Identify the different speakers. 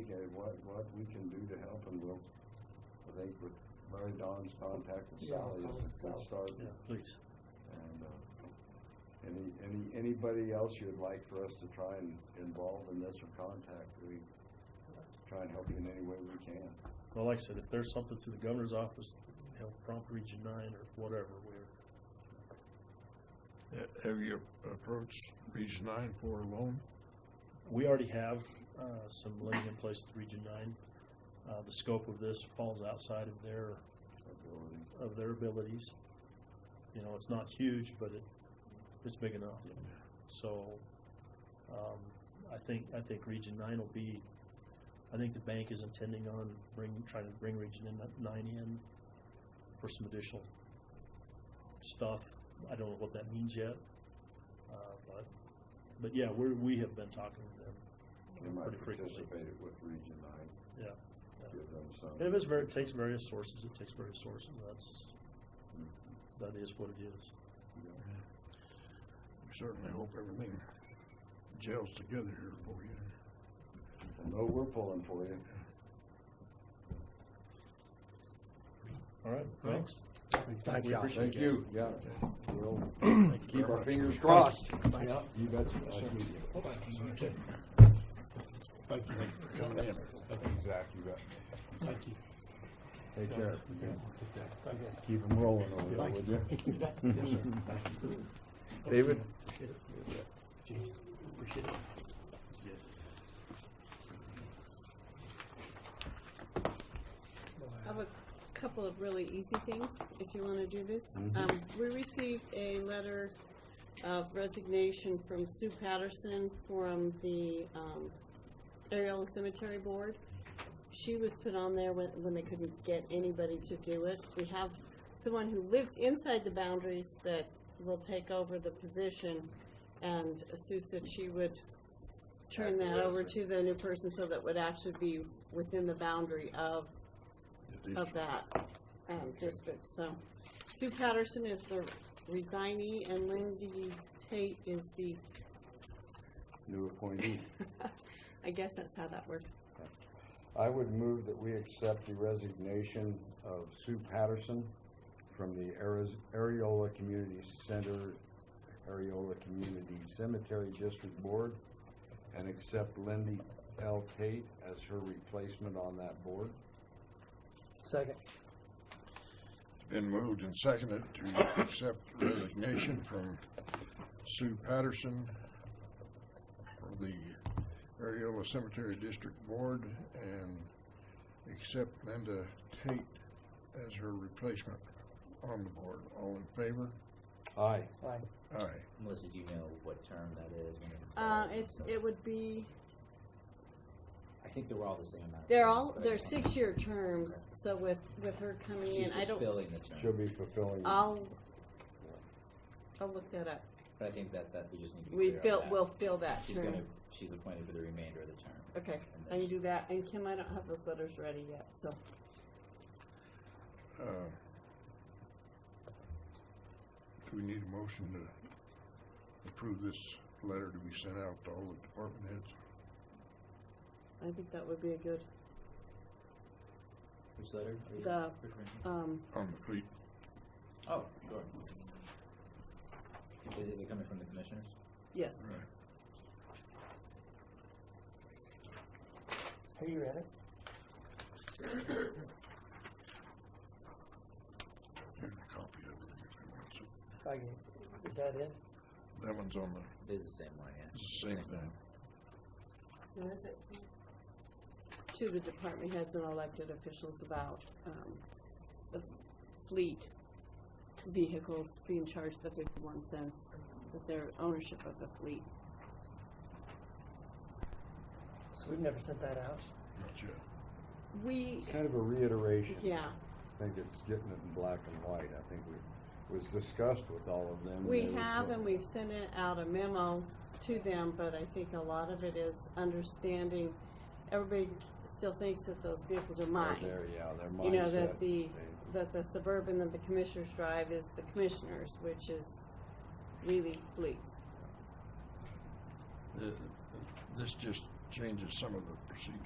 Speaker 1: like what we can do to help and we'll, I think with Mary Dawn's contact with
Speaker 2: Yeah, I'll
Speaker 1: Sally is a
Speaker 2: call
Speaker 1: good
Speaker 2: Sally.
Speaker 1: start.
Speaker 3: Yeah, please.
Speaker 1: And, uh, any, any, anybody else you'd like for us to try and involve in this or contact, we try and help you in any way we can.
Speaker 3: Well, like I said, if there's something through the governor's office, you know, prompt Region Nine or whatever, we're,
Speaker 4: Have you approached Region Nine for a loan?
Speaker 3: we already have, uh, some lending in place with Region Nine. Uh, the scope of this falls outside of their
Speaker 1: Ability.
Speaker 3: of their abilities. You know, it's not huge, but it, it's big enough. So, um, I think, I think Region Nine will be, I think the bank is intending on bring, trying to bring Region in- Nine in for some additional stuff. I don't know what that means yet. Uh, but, but yeah, we're, we have been talking to
Speaker 1: They
Speaker 3: them
Speaker 1: might
Speaker 3: pretty frequently.
Speaker 1: participate it with Region Nine.
Speaker 3: Yeah, yeah.
Speaker 1: Give them some.
Speaker 3: And if it's very, it takes various sources, it takes various sources. That's, that is what it is.
Speaker 4: We certainly hope everything gels together here for you.
Speaker 1: No, we're pulling for you.
Speaker 3: All right, thanks.
Speaker 2: Thank you.
Speaker 1: Thank you, yeah. We'll keep our fingers crossed.
Speaker 2: Crossed.
Speaker 1: Yeah, you bet. Nice meeting you.
Speaker 2: Thank you.
Speaker 1: Exactly, you bet.
Speaker 2: Thank you.
Speaker 1: Take care.
Speaker 2: Thank you.
Speaker 1: Keep them rolling over there, would you? David?
Speaker 2: Appreciate it.
Speaker 5: I have a couple of really easy things, if you want to do this.
Speaker 1: Mhm.
Speaker 5: Um, we received a letter of resignation from Sue Patterson from the, um, Ariola Cemetery Board. She was put on there when, when they couldn't get anybody to do it. We have someone who lives inside the boundaries that will take over the position, and Sue said she would turn that over to the new person so that would actually be within the boundary of of that um, district, so. Sue Patterson is the resignee, and Lindy Tate is the,
Speaker 1: New appointee.
Speaker 5: I guess that's how that works.
Speaker 1: I would move that we accept the resignation of Sue Patterson from the Ariz- Areola Community Center, Areola Community Cemetery District Board, and accept Lindy L. Tate as her replacement on that board.
Speaker 2: Second.
Speaker 4: Been moved and seconded to accept resignation from Sue Patterson for the Areola Cemetery District Board and accept Linda Tate as her replacement on the board. All in favor?
Speaker 1: Aye.
Speaker 2: Aye.
Speaker 4: Aye.
Speaker 6: Melissa, do you know what term that is? when it
Speaker 5: Uh,
Speaker 6: expires and
Speaker 5: it's,
Speaker 6: stuff?
Speaker 5: it would be,
Speaker 6: I think they're all the same amount. of
Speaker 5: they're
Speaker 6: terms,
Speaker 5: all,
Speaker 6: but I
Speaker 5: they're
Speaker 6: just wanna-
Speaker 5: six-year terms, so with, with her coming
Speaker 6: She's
Speaker 5: in, I
Speaker 6: just
Speaker 5: don't,
Speaker 6: filling the term.
Speaker 1: She'll be fulfilling.
Speaker 5: I'll, I'll look that up.
Speaker 6: But I think that, that we just need to be
Speaker 5: We
Speaker 6: clear on
Speaker 5: fill,
Speaker 6: that.
Speaker 5: we'll fill that
Speaker 6: She's
Speaker 5: term.
Speaker 6: gonna, she's appointed for the remainder of the term.
Speaker 5: Okay,
Speaker 6: and
Speaker 5: I
Speaker 6: then
Speaker 5: can
Speaker 6: she-
Speaker 5: do that, and Kim, I don't have those letters ready yet, so.
Speaker 4: Uh, Do we need a motion to approve this letter to be sent out to all the department heads?
Speaker 5: I think that would be a good,
Speaker 6: Which letter? are you-
Speaker 5: the,
Speaker 6: which one?
Speaker 5: um,
Speaker 4: On the fleet,
Speaker 6: Oh, sure. Is, is it coming from the commissioners?
Speaker 5: yes.
Speaker 2: Are you ready?
Speaker 4: Here's a copy of it if you want it.
Speaker 2: Thank you. Is that it?
Speaker 4: That one's on the,
Speaker 6: It is the same one, yeah.
Speaker 4: it's the same thing.
Speaker 5: What is it? To the department heads and elected officials about, um, the f- fleet vehicles being charged the fifty-one cents, with their ownership of the fleet.
Speaker 2: So we've never sent that out?
Speaker 4: Not yet.
Speaker 5: We,
Speaker 1: It's kind of a reiteration.
Speaker 5: yeah,
Speaker 1: I think it's getting it in black and white. I think we, was discussed with all of them.
Speaker 5: we
Speaker 1: They were
Speaker 5: have
Speaker 1: put-
Speaker 5: and we've sent it out a memo to them, but I think a lot of it is understanding, everybody still thinks that those vehicles are
Speaker 1: Oh,
Speaker 5: mine.
Speaker 1: There, yeah, their mindset.
Speaker 5: You know, that the,
Speaker 1: They-
Speaker 5: that the suburban that the commissioners drive is the commissioners, which is really fleets.
Speaker 4: Uh, The- the- This just changes some of the procedures.